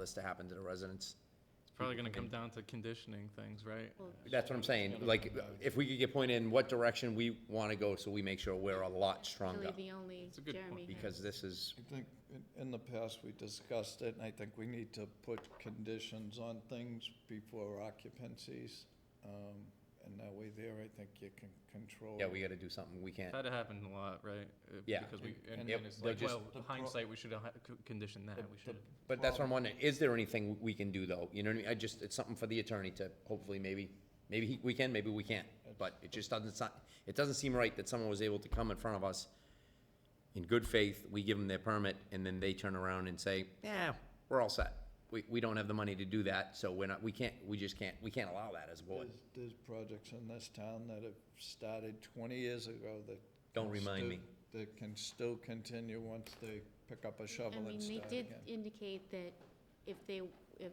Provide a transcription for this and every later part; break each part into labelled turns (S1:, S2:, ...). S1: this to happen to the residents.
S2: It's probably gonna come down to conditioning things, right?
S1: That's what I'm saying, like, if we could get pointed in what direction we want to go, so we make sure we're a lot stronger,
S3: Really the only
S2: It's a good point.
S3: Jeremy. had.
S1: because this is,
S4: I think in- in the past, we discussed it, and I think we need to put conditions on things before occupancies. um, And that way there, I think you can control.
S1: yeah, we got to do something, we can't.
S2: That happened a lot, right? Uh,
S1: Yeah.
S2: Because we, and
S4: And
S2: and it's
S1: they're
S2: like,
S1: just-
S2: well,
S4: The pro-
S2: hindsight, we should have ha- co- conditioned that, we should.
S1: But that's what I'm wondering, is there anything we can do, though? You know what I mean? I just, it's something for the attorney to, hopefully, maybe, maybe he- we can, maybe we can't. But it just doesn't, si- it doesn't seem right that someone was able to come in front of us in good faith, we give them their permit, and then they turn around and say, yeah, we're all set. We, we don't have the money to do that, so we're not, we can't, we just can't, we can't allow that as a board.
S4: There's, there's projects in this town that have started twenty years ago that.
S1: Don't
S4: can
S1: remind
S4: still-
S1: me.
S4: That can still continue once they pick up a
S3: I
S4: shovel
S3: mean,
S4: and
S3: they
S4: start
S3: did
S4: again.
S3: indicate that if they, if,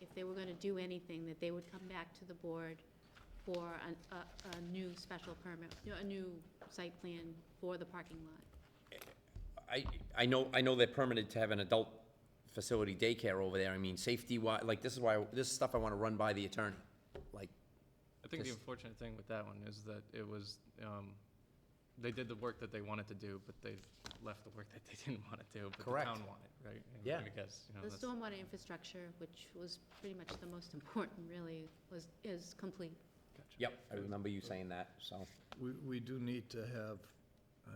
S3: if they were gonna do anything, that they would come back to the board for an- a, a new special permit, you know, a new site plan for the parking lot.
S1: I, I know, I know they're permitted to have an adult facility daycare over there. I mean, safety wise, like, this is why, this is stuff I want to run by the attorney. Like,
S2: I think the
S1: Just-
S2: unfortunate thing with that one is that it was, um, they did the work that they wanted to do, but they left the work that they didn't wanna do, but the
S1: Correct.
S2: town wanted, right? And
S1: Yeah.
S2: I guess, you know,
S3: The
S2: that's-
S3: stormwater infrastructure, which was pretty much the most important, really, was, is complete.
S2: Gotcha.
S1: Yep, I remember you saying that, so.
S4: We, we do need to have,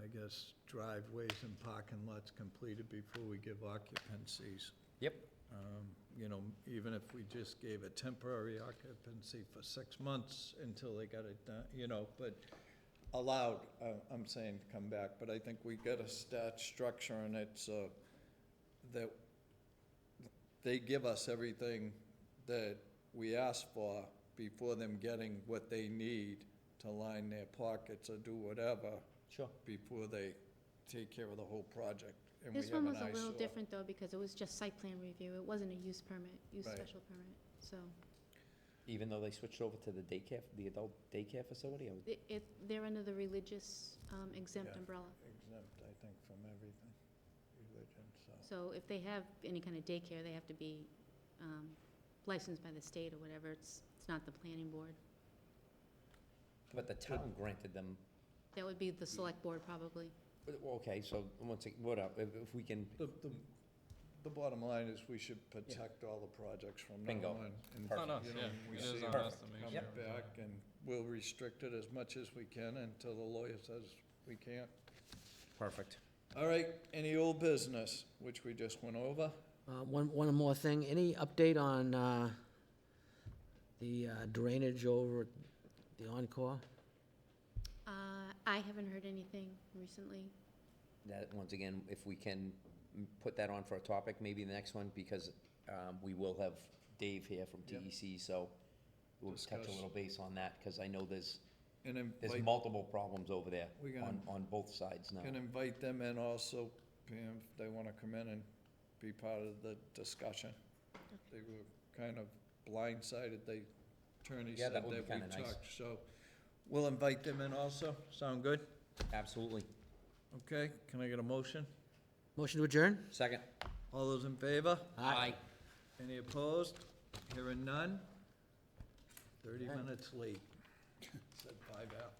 S4: I guess, driveways and parking lots completed before we give occupancies.
S1: Yep.
S4: Um, You know, even if we just gave a temporary occupancy for six months until they got it done, you know, but allowed, uh, I'm saying to come back, but I think we gotta start structuring it so that they give us everything that we ask for before them getting what they need to line their pockets or do whatever
S1: Sure.
S4: before they take care of the whole project. And we
S3: This
S4: have
S3: one
S4: an
S3: was a little
S4: eyesore.
S3: different, though, because it was just site plan review, it wasn't a use permit, use
S4: Right.
S3: special permit, so.
S1: Even though they switched over to the daycare, the adult daycare facility? I would-
S3: It, it, they're under the religious um, exempt
S4: Yeah.
S3: umbrella.
S4: exempt, I think, from everything, religion, so.
S3: So if they have any kind of daycare, they have to be um, licensed by the state or whatever. It's, it's not the planning board.
S1: But the town granted them,
S3: That would be the select board probably.
S1: well, okay, so once, ag- what up, if, if we can,
S4: The, the, the bottom line is we should protect all the projects from now
S1: Bingo.
S4: on. and,
S2: It's on us,
S4: you know,
S2: yeah,
S4: we
S2: it
S4: see
S2: is
S4: them
S2: on us to make
S4: Come
S2: sure.
S4: back and we'll restrict it as much as we can until the lawyer says we can't.
S1: perfect.
S4: All right, any old business, which we just went over?
S5: Uh, One, one more thing, any update on uh, the uh, drainage over at the Encore?
S3: Uh, I haven't heard anything recently.
S1: That, once again, if we can mm, put that on for a topic, maybe the next one, because, um, we will have Dave here from
S4: Yep.
S1: TEC, so we'll touch a
S4: Discuss.
S1: little base on that, because I know there's,
S4: And
S1: there's
S4: invite,
S1: multiple problems over there
S4: We're gonna-
S1: on, on both sides now.
S4: can invite them in also, Pam, if they wanna come in and be part of the discussion. They were kind of blindsided, the attorney
S1: Yeah,
S4: said
S1: that
S4: that
S1: would be
S4: we
S1: kinda nice.
S4: talked, so we'll invite them in also, sound good?
S1: Absolutely.
S4: Okay, can I get a motion?
S5: Motion to adjourn?
S1: Second.
S4: All those in favor?
S1: Aye.
S4: Any opposed? Hearing none? Thirty minutes late. Said five after.